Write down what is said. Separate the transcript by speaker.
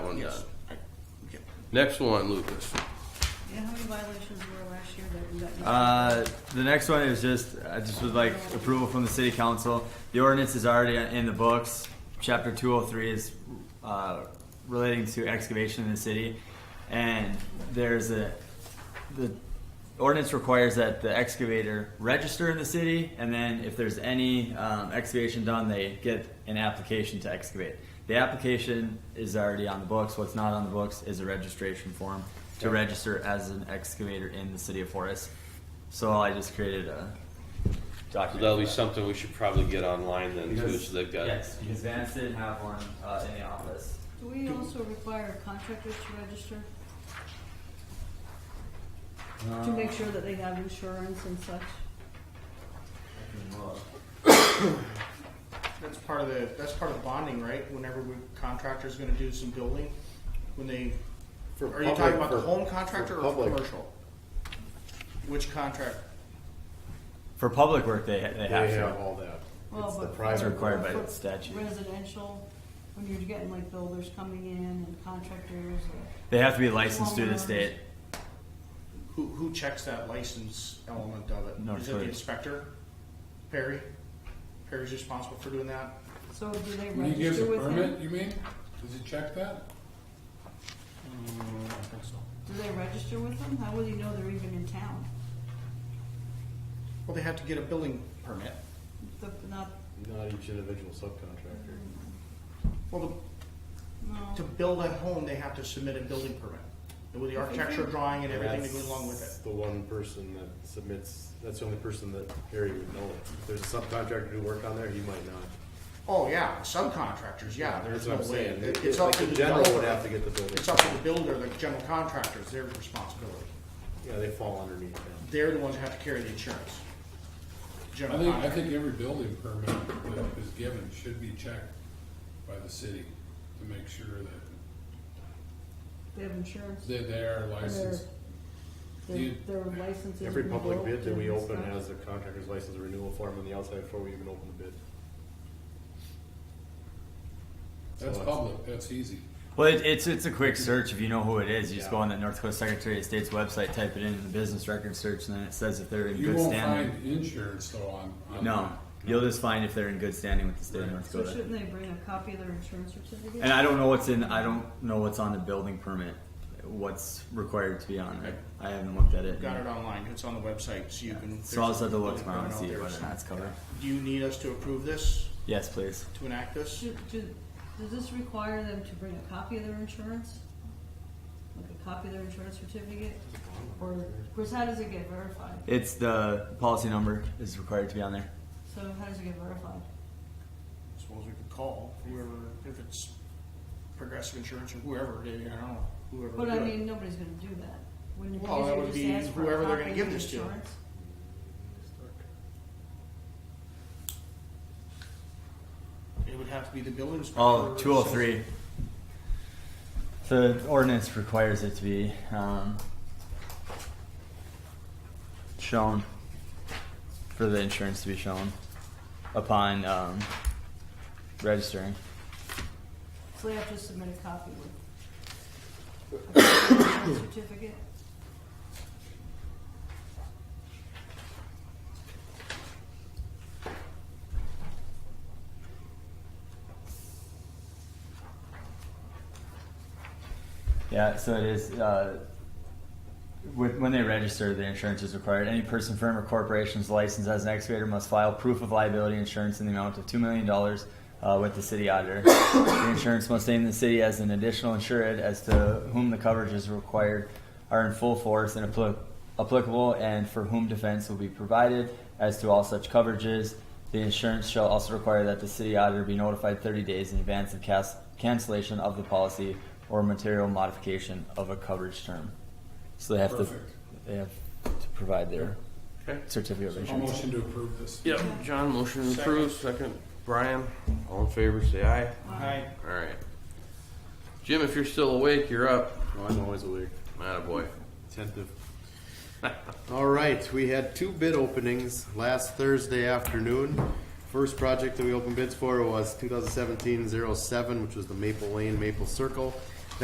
Speaker 1: Next one, Lucas.
Speaker 2: Yeah, how many violations were last year that we got? notified?
Speaker 3: Uh, the next one is just, I just would like approval from the city council. The ordinance is already in the books. Chapter two oh three is, uh, relating to excavation in the city. And there's a, the ordinance requires that the excavator register in the city. And then if there's any, um, excavation done, they get an application to excavate. The application is already on the books. What's not on the books is a registration form to register as an excavator in the city of Forest. So I just created a
Speaker 1: So
Speaker 3: document.
Speaker 1: that'll
Speaker 3: for
Speaker 1: be
Speaker 3: that.
Speaker 1: something we should probably get online then too,
Speaker 3: Because-
Speaker 1: so they've got.
Speaker 3: Yes, because Vance didn't have one uh, in the office.
Speaker 2: Do we also require contractors to register,
Speaker 3: Uh,
Speaker 2: to make sure that they have insurance and such?
Speaker 4: That's part of the, that's part of bonding, right? Whenever we, contractor's gonna do some building, when they,
Speaker 5: For
Speaker 4: are you
Speaker 5: public-
Speaker 4: talking about the
Speaker 5: for-
Speaker 4: home contractor
Speaker 5: for
Speaker 4: or for
Speaker 5: public.
Speaker 4: commercial? Which contract?
Speaker 3: For public work, they they have
Speaker 5: They have
Speaker 3: to.
Speaker 5: all that.
Speaker 2: Well,
Speaker 5: It's the
Speaker 2: but-
Speaker 3: It's
Speaker 5: private.
Speaker 3: required by
Speaker 2: For
Speaker 3: the statute.
Speaker 2: Residential, when you're getting like builders coming in and contractors, uh, or-
Speaker 3: They have to be licensed through the state.
Speaker 4: Who, who checks that license element of it?
Speaker 3: Not
Speaker 4: Is it the
Speaker 3: clear.
Speaker 4: inspector? Perry? Perry's responsible for doing that?
Speaker 2: so do they
Speaker 6: When he gives a
Speaker 2: register with
Speaker 6: permit,
Speaker 2: him?
Speaker 6: you mean? Does he check that?
Speaker 2: Do they register with him? How will you know they're even in town?
Speaker 4: Well, they have to get a building permit.
Speaker 2: The, not,
Speaker 5: Not each individual subcontractor.
Speaker 4: Well,
Speaker 2: no,
Speaker 4: to- to build a home, they have to submit a building permit. With the architecture drawing and everything that goes along with
Speaker 5: That's
Speaker 4: it.
Speaker 5: The one person that submits, that's the only person that Harry would know. If there's a subcontractor who worked on there, he might not.
Speaker 4: Oh, yeah, subcontractors, yeah, there's
Speaker 5: That's
Speaker 4: no
Speaker 5: what I'm
Speaker 4: way.
Speaker 5: saying.
Speaker 4: It-
Speaker 5: Like,
Speaker 4: It's up to
Speaker 5: The
Speaker 4: the
Speaker 5: general would
Speaker 4: developer.
Speaker 5: have to get the building.
Speaker 4: It's up to the builder, the general contractors, their responsibility.
Speaker 5: Yeah, they fall underneath him.
Speaker 4: They're the ones who have to carry the insurance.
Speaker 6: I
Speaker 4: General
Speaker 6: think, I
Speaker 4: contractor.
Speaker 6: think every building permit that is given should be checked by the city to make sure that
Speaker 2: they have insurance,
Speaker 6: they, they
Speaker 2: they're,
Speaker 6: are licensed.
Speaker 2: they're,
Speaker 6: you-
Speaker 2: they're licensed.
Speaker 5: Every public bid that we open has a contractor's license renewal form on the outside before we even open the bid.
Speaker 6: That's
Speaker 5: So it's-
Speaker 6: public, that's easy.
Speaker 3: Well, it, it's it's a quick search if you know who it is. You just
Speaker 5: Yeah.
Speaker 3: go on the North Dakota Secretary of State's website, type it in the business record search, and then it says if they're in
Speaker 6: You
Speaker 3: good
Speaker 6: won't
Speaker 3: standing.
Speaker 6: find insurance though on. on
Speaker 3: No,
Speaker 6: that.
Speaker 3: you'll just find if they're in good standing with the state of North
Speaker 2: So
Speaker 3: Dakota.
Speaker 2: shouldn't they bring a copy of their insurance certificate?
Speaker 3: And I don't know what's in. I don't know what's on the building permit. What's required to be on it? I haven't looked at it.
Speaker 4: Got it online, it's on the website, so you can.
Speaker 3: So I'll just have to look
Speaker 4: there's a
Speaker 3: tomorrow and
Speaker 4: building
Speaker 3: see
Speaker 4: permit out
Speaker 3: whether or
Speaker 4: there.
Speaker 3: not it's covered.
Speaker 4: Do you need us to approve this,
Speaker 3: Yes, please.
Speaker 4: to enact this?
Speaker 2: Do, do, does this require them to bring a copy of their insurance? Like a copy of their insurance certificate? Or, of course, how does it get verified?
Speaker 3: It's the policy number is required to be on there.
Speaker 2: So how does it get verified?
Speaker 4: Suppose we could call whoever, if it's progressive insurance or whoever, it is, I don't know, whoever.
Speaker 2: But
Speaker 4: would
Speaker 2: I
Speaker 4: do it.
Speaker 2: mean, nobody's gonna do that. Wouldn't it be
Speaker 4: Well, that
Speaker 2: easier
Speaker 4: would
Speaker 2: just
Speaker 4: be
Speaker 2: ask for a
Speaker 4: whoever they're
Speaker 2: copy
Speaker 4: gonna
Speaker 2: of
Speaker 4: give
Speaker 2: the
Speaker 4: this to.
Speaker 2: insurance?
Speaker 4: It would have to be the building inspector.
Speaker 3: Oh,
Speaker 4: or
Speaker 3: 203. The ordinance requires it to be um, shown for the insurance to be shown upon um, registering.
Speaker 2: So they have to submit a copy with. a copy of the insurance Certificate?
Speaker 3: Yeah, so it is. Uh, with, when they register, the insurance is required. Any person, firm, or corporation's licensed as an excavator must file proof of liability insurance in the amount of $2 million uh, with the city auditor. the insurance must name the city as an additional insured as to whom the coverage is required, are in full force and appli- applicable, and for whom defense will be provided as to all such coverages. The insurance shall also require that the city auditor be notified 30 days in advance of cas- cancellation of the policy or material modification of a coverage term. So they have
Speaker 6: Perfect.
Speaker 3: to they have to provide their
Speaker 1: Okay.
Speaker 3: certificate of
Speaker 6: I'll
Speaker 3: insurance.
Speaker 6: motion to approve this.
Speaker 1: Yep, John, motion approved, second, Brian, all in favor, say aye.
Speaker 4: Aye.
Speaker 1: Alright. Jim, if you're still awake, you're up.
Speaker 5: Oh, I'm always aware.
Speaker 1: Attaboy.
Speaker 5: Attentive. All right, we had two bid openings last Thursday afternoon. First oh project that we opened bids for was 2017-07, which was the Maple Lane Maple Circle.